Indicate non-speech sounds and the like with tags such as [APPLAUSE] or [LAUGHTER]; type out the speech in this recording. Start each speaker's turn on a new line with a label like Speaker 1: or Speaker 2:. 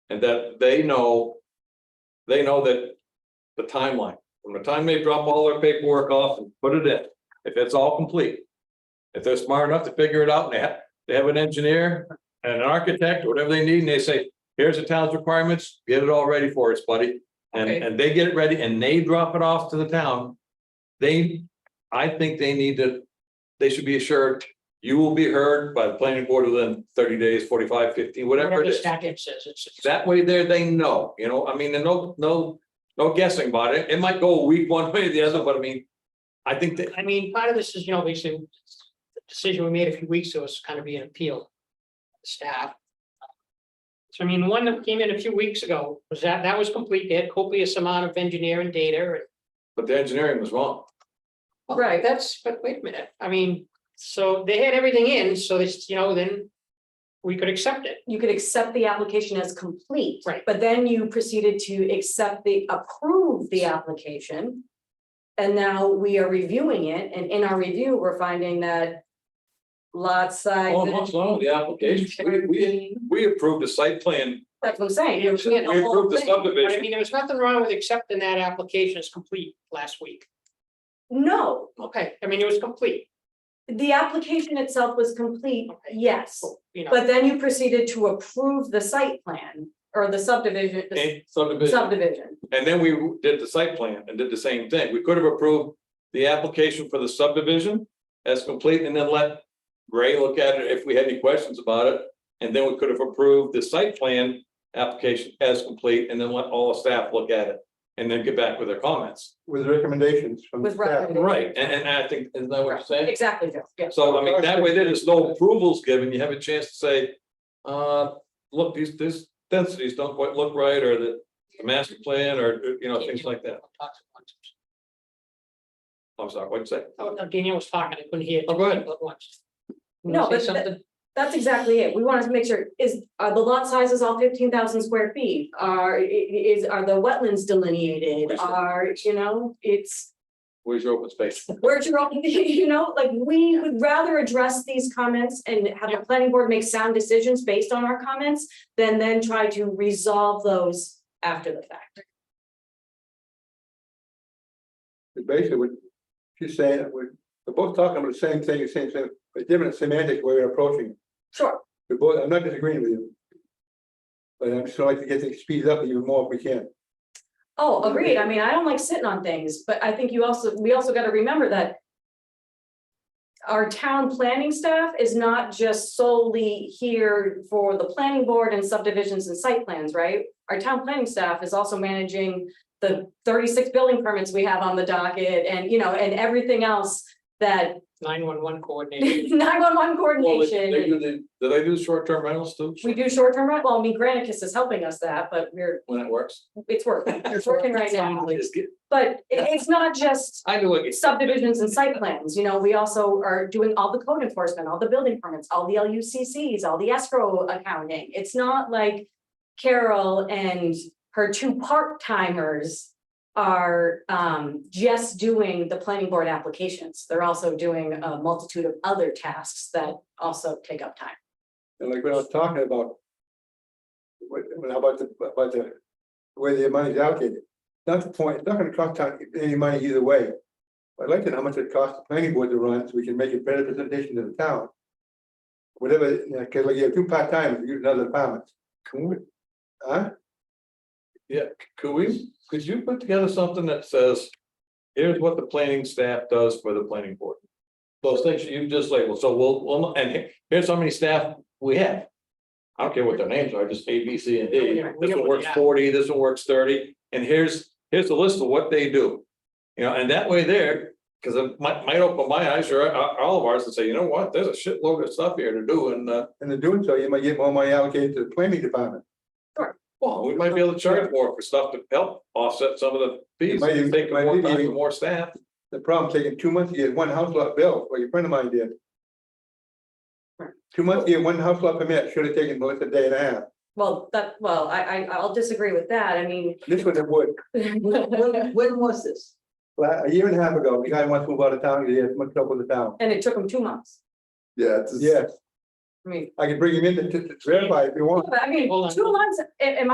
Speaker 1: And that they know, they know that the timeline, from the time they drop all their paperwork off and put it in, if it's all complete. If they're smart enough to figure it out and they have, they have an engineer and an architect, whatever they need, and they say, here's the town's requirements, get it all ready for us, buddy. And,
Speaker 2: Okay.
Speaker 1: and they get it ready and they drop it off to the town. They, I think they need to, they should be assured, you will be heard by the planning board within thirty days, 45, 50, whatever
Speaker 2: Whatever
Speaker 1: it
Speaker 2: the
Speaker 1: is.
Speaker 2: statute says, it's.
Speaker 1: That way there, they know, you know, I mean, and no, no, no guessing about it. It might go a week [LAUGHS] one way or the other, but I mean. I think that,
Speaker 2: I mean, part of this is, you know, basically, the decision we made a few weeks ago is kind of being appealed. Staff. So I mean, one that came in a few weeks ago was that, that was complete. They had copious amount of engineering data and.
Speaker 1: but the engineering was wrong.
Speaker 2: Right. That's, but wait a minute, I mean, so they had everything in, so this, you know, then we could accept it.
Speaker 3: you could accept the application as complete.
Speaker 2: Right.
Speaker 3: But then you proceeded to accept the, approve the application. And now we are reviewing it, and in our review, we're finding that lot size.
Speaker 1: Oh, much longer the application. We, we, we approved the site plan.
Speaker 3: That's what I'm saying.
Speaker 2: We
Speaker 3: You're looking at the
Speaker 1: We
Speaker 3: whole
Speaker 1: approved the
Speaker 3: thing.
Speaker 2: But I
Speaker 1: subdivision.
Speaker 2: mean, there was nothing wrong with accepting that application as complete last week.
Speaker 3: No,
Speaker 2: Okay, I mean, it was complete,
Speaker 3: the application itself was complete,
Speaker 2: Okay.
Speaker 3: yes,
Speaker 2: you know.
Speaker 3: but then you proceeded to approve the site plan or the subdivision, the
Speaker 1: eh, Subdivision.
Speaker 3: subdivision.
Speaker 1: And then we did the site plan and did the same thing. We could have approved the application for the subdivision as complete and then let Ray look at it if we had any questions about it. And then we could have approved the site plan application as complete and then let all the staff look at it and then get back with their comments.
Speaker 4: With recommendations from the
Speaker 3: With
Speaker 4: staff.
Speaker 3: recommendations.
Speaker 1: Right, and, and I think, isn't that what you're saying?
Speaker 3: Exactly, Joe, yes.
Speaker 1: So I mean, that way there is no approvals given. You have a chance to say, uh, look, these, these densities don't quite look right or the the master plan or, you know, things like that. I'm sorry, what'd you say?
Speaker 2: Oh, no, Danielle was talking, I couldn't hear.
Speaker 1: Oh, go ahead.
Speaker 2: But once. You
Speaker 3: No,
Speaker 2: wanna
Speaker 3: but
Speaker 2: say
Speaker 3: that-
Speaker 2: something?
Speaker 3: That's exactly it. We wanted to make sure, is, are the lot sizes all fifteen thousand square feet? Are, i- i- is, are the wetlands delineated? Are, you know, it's,
Speaker 1: Where's your open space?
Speaker 3: where's your, own- [LAUGHS] you know, like, we would rather address these comments and have the planning board make sound decisions based on our comments than then try to resolve those after the fact.
Speaker 4: Basically, what she's saying, that we're, we're both talking about the same thing, the same thing, but different semantic way of approaching. it.
Speaker 3: Sure,
Speaker 4: We're both, I'm not disagreeing with you. But I'm just like to get things speeded up even more if we can.
Speaker 3: oh, agreed. I mean, I don't like sitting on things, but I think you also, we also gotta remember that our town planning staff is not just solely here for the planning board and subdivisions and site plans, right? Our town planning staff is also managing the thirty-six building permits we have on the docket and, you know, and everything else that [LAUGHS]
Speaker 2: Nine one one coordinator.
Speaker 3: nine-one-one
Speaker 1: Well, they- they
Speaker 3: coordination.
Speaker 1: do the- Do they do short-term rentals too?
Speaker 3: We do short-term rental, well, I mean, Granicus is helping us that, but we're,
Speaker 1: When it works.
Speaker 3: it's working, [LAUGHS] it's working right now.
Speaker 1: Just get-
Speaker 3: But it- it's not just
Speaker 1: I know what you
Speaker 3: subdivisions and site plans, you know, we also are doing all the code enforcement, all the building permits, all the LUCCs, all the escrow accounting. It's not like Carol and her two part-timers are um just doing the planning board applications. They're also doing a multitude of other tasks that also take up time.
Speaker 4: And like when I was talking about. What, when- how about the, about the, where the money's allocated, not the point, it's not gonna cost town any money either way. I'd like to know how much it costs the planning board to run, so we can make a better presentation to the town. Whatever, you know, cause like you have two part-timers, you use another department,
Speaker 1: Can we,
Speaker 4: huh?
Speaker 1: could we, could you put together something that says, here's what the planning staff does for the planning board? Those things you just labeled, so we'll, we'll, and here- here's how many staff we have. I don't care what their names are, just A, B, C, and
Speaker 2: We
Speaker 1: D.
Speaker 2: don't- Oh, we
Speaker 1: This one
Speaker 2: don't want
Speaker 1: works
Speaker 2: that.
Speaker 1: forty, this one works thirty, and here's, here's a list of what they do. You know, and that way there, because it might, might open my eyes or uh, all of ours and say, you know what, there's a shitload of stuff here to do and, uh,
Speaker 4: And in doing so, you might get more money allocated to the planning department.
Speaker 1: Well, we might be able to charge more for stuff to help offset some of the fees,
Speaker 4: Might even-
Speaker 1: take
Speaker 4: might
Speaker 1: more
Speaker 4: even-
Speaker 1: time and more staff.
Speaker 4: The problem, taking two months to get one house lot built, like a friend of mine did.
Speaker 3: Right.
Speaker 4: Two months to get one house lot permit, should have taken more than a day and a half,
Speaker 3: Well, that, well, I I I'll disagree with that. I mean, [LAUGHS]
Speaker 4: this one it would.
Speaker 3: and
Speaker 2: was this?
Speaker 4: Well, a year and a half ago, the guy wants to move out of town, he had much trouble with the town.
Speaker 3: it took them two months.
Speaker 5: Yeah. it's-
Speaker 4: Yes,
Speaker 3: I mean,
Speaker 4: I can bring him in to to- to verify if you want.
Speaker 3: I mean,
Speaker 2: Hold on.
Speaker 3: two months, in in my